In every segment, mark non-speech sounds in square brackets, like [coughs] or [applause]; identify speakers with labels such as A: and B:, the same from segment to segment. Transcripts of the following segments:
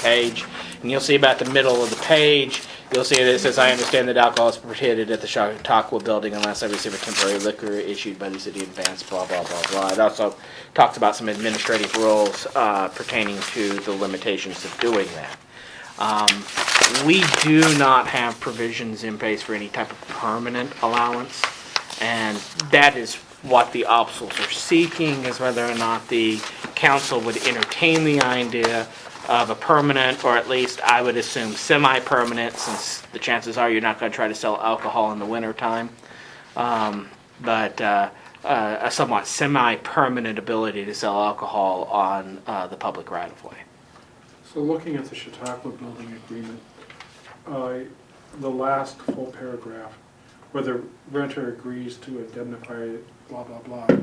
A: page, and you'll see about the middle of the page, you'll see that it says, "I understand that alcohol is prohibited at the Chautauqua Building unless I receive a temporary liquor issued by the city in advance." Blah blah blah blah. It also talks about some administrative rules uh, pertaining to the limitations of doing that. Um, We do not have provisions in place for any type of permanent allowance, and that is what the obstacles are seeking, is whether or not the council would entertain the idea of a permanent, or at least, I would assume, semi-permanent, since the chances are you're not gonna try to sell alcohol in the wintertime. Um, but, uh, uh, a somewhat semi-permanent ability to sell alcohol on, uh, the public right-of-way.
B: So looking at the Chautauqua Building Agreement, uh, the last full paragraph, where the renter agrees to indemnify, blah, blah, blah,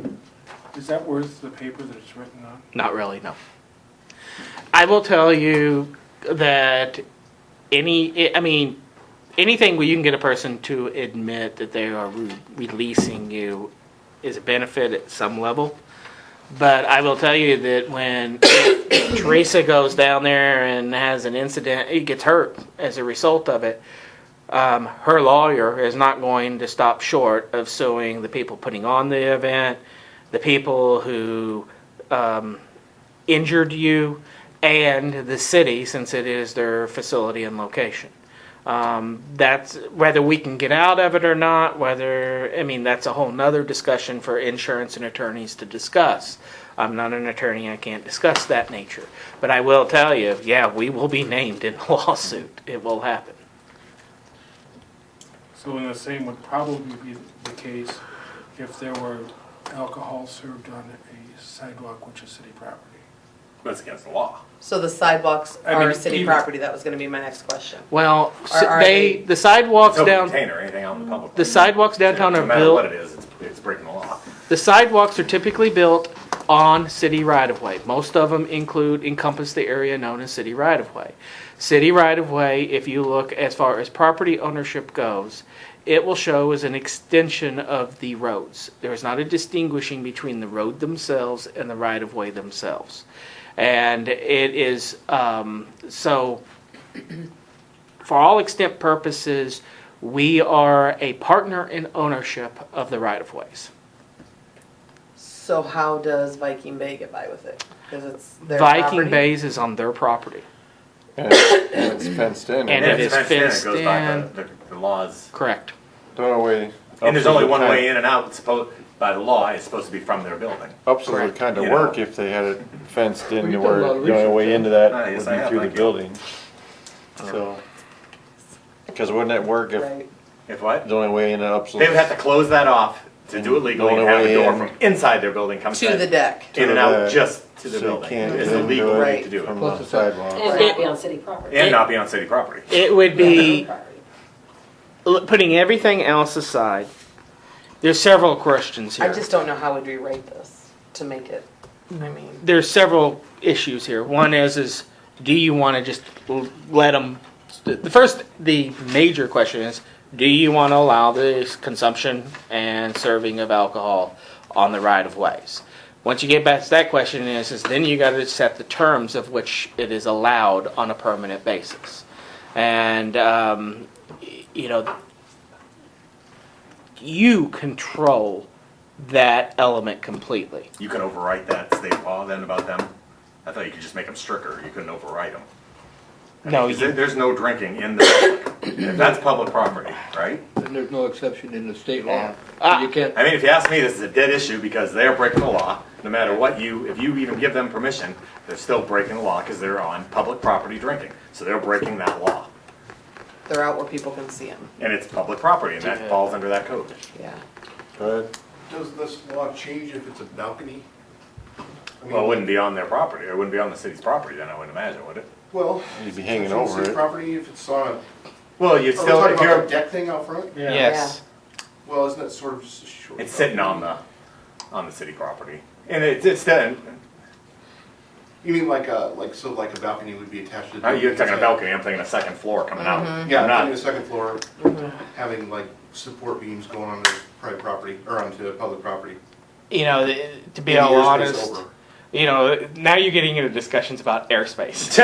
B: is that worth the paper that it's written on?
A: Not really, no. I will tell you that any, I mean, anything where you can get a person to admit that they are re- releasing you is a benefit at some level. But I will tell you that when [coughs] Teresa goes down there and has an incident, it gets hurt as a result of it. Um, her lawyer is not going to stop short of suing the people putting on the event, the people who um, injured you, and the city, since it is their facility and location. Um, that's whether we can get out of it or not, whether, I mean, that's a whole nother discussion for insurance and attorneys to discuss. I'm not an attorney, I can't discuss that nature. But I will tell you, yeah, we will be named in a [laughs] lawsuit. It will happen.
B: So in the same would probably be the case if there were alcohol served on a sidewalk, which is city property.
C: That's against the law.
D: So the sidewalks
B: I
D: are
B: mean,
D: city
B: even-
D: property, that was gonna be my next question.
A: Well, s-
D: Are- are
A: they,
D: they-
A: the sidewalks
C: It's open
A: down,
C: container, anything out in the public.
A: the sidewalks downtown are
C: Oh, No matter what
A: built
C: it is, it's, it's breaking the law.
A: The sidewalks are typically built on city right-of-way. Most of them include, encompass the area known as city right-of-way. City right-of-way, if you look as far as property ownership goes, it will show as an extension of the roads. There is not a distinguishing between the road themselves and the right-of-way themselves. And it is, um, so, for all extent purposes, we are a partner in ownership of the right-of-ways.
D: So how does Viking Bay get by with it? Cause it's their
A: Viking
D: property.
A: Bays is on their property.
E: And it's- and it's fenced in.
A: And it is
C: it's fenced in,
A: fenced
C: It goes by
A: in.
C: the, the, the laws.
A: Correct.
E: Don't know way.
C: And there's only one way in and out, it's supposed, by the law, it's supposed to be from their building.
E: Ups would
A: Correct.
E: kind of
C: You
E: work
C: know.
E: if they had it fenced in
B: We've
E: to
B: done a
E: where
B: lot of
E: the only way into that
C: Ah, yes,
E: would
C: I
E: be
C: have,
E: through the
C: thank you.
E: building. So. Because wouldn't it work if
D: Right,
C: If what?
E: the only way in and ups?
C: They would have to close that off to do it legally and
E: only
C: have a
E: way
C: door
E: in-
C: from inside their building come
D: to the
C: in.
D: deck.
C: In and
E: To
C: out
E: the-
C: just to the
E: so you
C: building.
E: can't
C: It's
E: do
C: the
E: it
C: legal way to
D: Right.
C: do
E: From
C: it.
E: the sidewalk.
F: And not be on city property.
C: And not be on city property.
A: It would
F: Be
A: be, l- putting everything else aside, there's several questions
D: I
A: here.
D: just don't know how we'd rewrite this to make it, I mean,
A: There's several issues here. One is, is do you want to just l- let them, the first, the major question is, do you want to allow the consumption and serving of alcohol on the right of ways? Once you get back to that question is, is then you got to set the terms of which it is allowed on a permanent basis. And, um, y- you know, you control that element completely.
C: You can overwrite that state law then about them? I thought you could just make them stricter, you couldn't overwrite them.
A: No,
C: Is
A: you,
C: there- There's no drinking in the public. And That's public property, right?
G: And there's no exception in the state law.
A: Ah.
G: You can't,
C: I mean, if you ask me, this is a dead issue because they're breaking the law. No matter what you, if you even give them permission, they're still breaking the law because they're on public property drinking. So they're breaking that law.
D: they're out where people can see them,
C: And it's public property and that falls under that code.
D: yeah.
E: Go ahead.
H: Does this law change if it's a balcony? I mean,
C: Well, it wouldn't be on their property. It wouldn't be on the city's property then, I wouldn't imagine, would it?
H: Well.
E: You'd be
H: if
E: hanging
H: it's on
E: over
H: city
E: it.
H: Property, if it's on a, uh, are
C: Well, you
H: we
C: still,
H: talking
C: if
H: about
C: you're,
H: a deck thing out front?
A: yes.
H: Well, isn't that sort of just a short?
C: it's sitting on the, on the city property. And it's, it's, then-
H: You mean like a, like, so like a balcony would be attached to? the
C: now uh, Oh, you're
H: building
C: talking a
H: inside?
C: balcony, I'm thinking a second floor coming out.
H: Yeah,
C: I'm
H: I'm thinking
C: not,
H: the second floor, having like support beams going onto private property, or onto public property.
A: You know, th- to be
H: And the
A: all
H: airspace
A: honest,
H: over. [laughs]
A: you know, now you're getting into discussions about airspace.